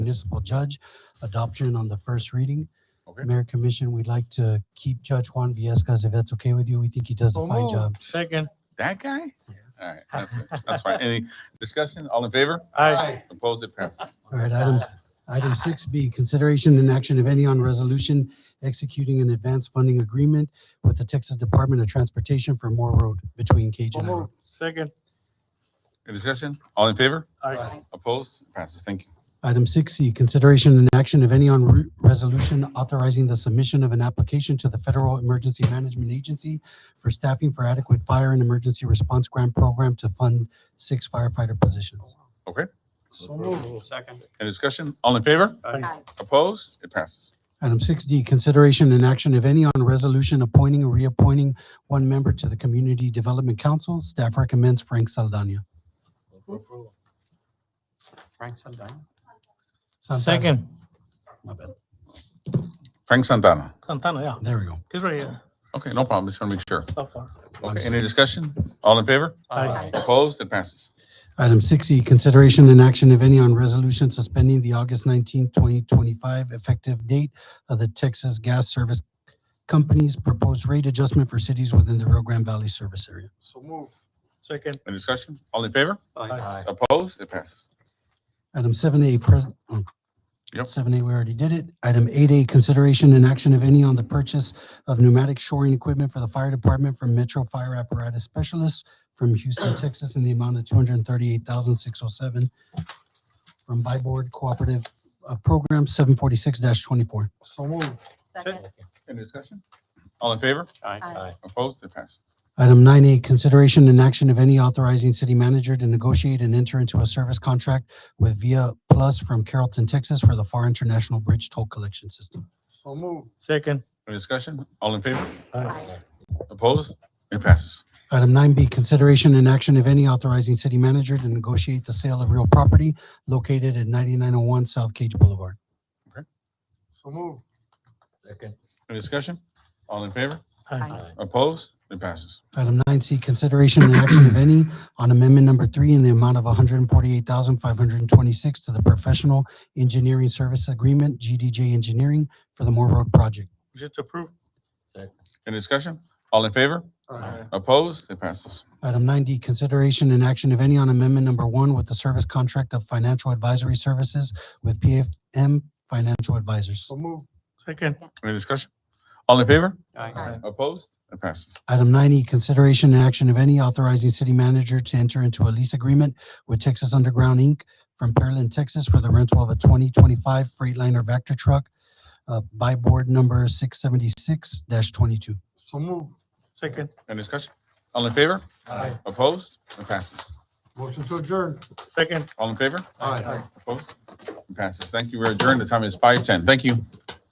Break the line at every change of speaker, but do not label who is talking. municipal judge, adoption on the first reading.
Okay.
Mayor Commission, we'd like to keep Judge Juan Viescas, if that's okay with you. We think he does a
So
fine job.
moved.
Second.
That guy? All right, that's it. That's fine. Any discussion? All in favor?
Aye.
Opposed? It passes.
All right, item, item six B, consideration and action, if any, on resolution executing an advance funding agreement with the Texas Department of Transportation for Moore Road between Cajun and Iroh.
Second.
Any discussion? All in favor?
Aye.
Opposed? It passes. Thank you.
Item six C, consideration and action, if any, on re- resolution authorizing the submission of an application to the Federal Emergency Management Agency for staffing for adequate fire and emergency response grant program to fund six firefighter positions.
Okay.
So moved. Second.
Any discussion? All in favor?
Aye.
Opposed? It passes.
Item six D, consideration and action, if any, on resolution appointing or reappointing one member to the Community Development Council. Staff recommends Frank Saldana.
Frank Santana.
Santana,
Second.
My bad.
Frank Santana.
Santana, yeah.
There we go.
He's right here.
Okay, no problem. Just want to make sure.
So far.
Okay, any discussion? All in favor?
Aye.
Opposed? It passes.
Item six E, consideration and action, if any, on resolution suspending the August nineteenth, twenty twenty-five effective date of the Texas Gas Service Company's proposed rate adjustment for cities within the Rio Grande Valley service area.
So move. Second.
Any discussion? All in favor?
Aye.
Opposed? It passes.
Item seven A, present.
Yep.
Seven A, we already did it. Item eight A, consideration and action, if any, on the purchase of pneumatic shoring equipment for the fire department from Metro Fire Apparatus Specialists from Houston, Texas, in the amount of two hundred and thirty-eight thousand, six oh seven from Byboard Cooperative uh, Program seven forty-six twenty-four.
So moved.
Second.
Any discussion? All in favor?
Aye.
Opposed? It passes.
Item nine A, consideration and action, of any, authorizing city manager to negotiate and enter into a service contract with Via Plus from Carrollton, Texas for the FAR International Bridge Toll Collection System.
So moved. Second.
Any discussion? All in favor?
Aye.
Opposed? It passes.
Item nine B, consideration and action, if any, authorizing city manager to negotiate the sale of real property located at ninety-nine oh one South Cage Boulevard.
So moved.
Second.
Any discussion? All in favor?
Aye.
Opposed? It passes.
Item nine C, consideration and action, if any, on amendment number three in the amount of one hundred and forty-eight thousand, five hundred and twenty-six to the Professional Engineering Service Agreement, GDJ Engineering, for the Moore Road Project.
Just approve.
Any discussion? All in favor?
Aye.
Opposed? It passes.
Item nine D, consideration and action, if any, on amendment number one with the service contract of financial advisory services with PFM Financial Advisors.
So moved. Second.
Any discussion? All in favor?
Aye.
Opposed? It passes.
Item nine E, consideration and action of any authorizing city manager to enter into a lease agreement with Texas Underground, Inc. from Pearland, Texas for the rental of a twenty twenty-five Freightliner Vector truck uh, by board number six seventy-six twenty-two.
So moved. Second.
Any discussion? All in favor?
Aye.
Opposed? It passes.
Motion to adjourn. Second.
All in favor?
Aye.
Opposed? It passes. Thank you. We're adjourned. The time is five ten. Thank you.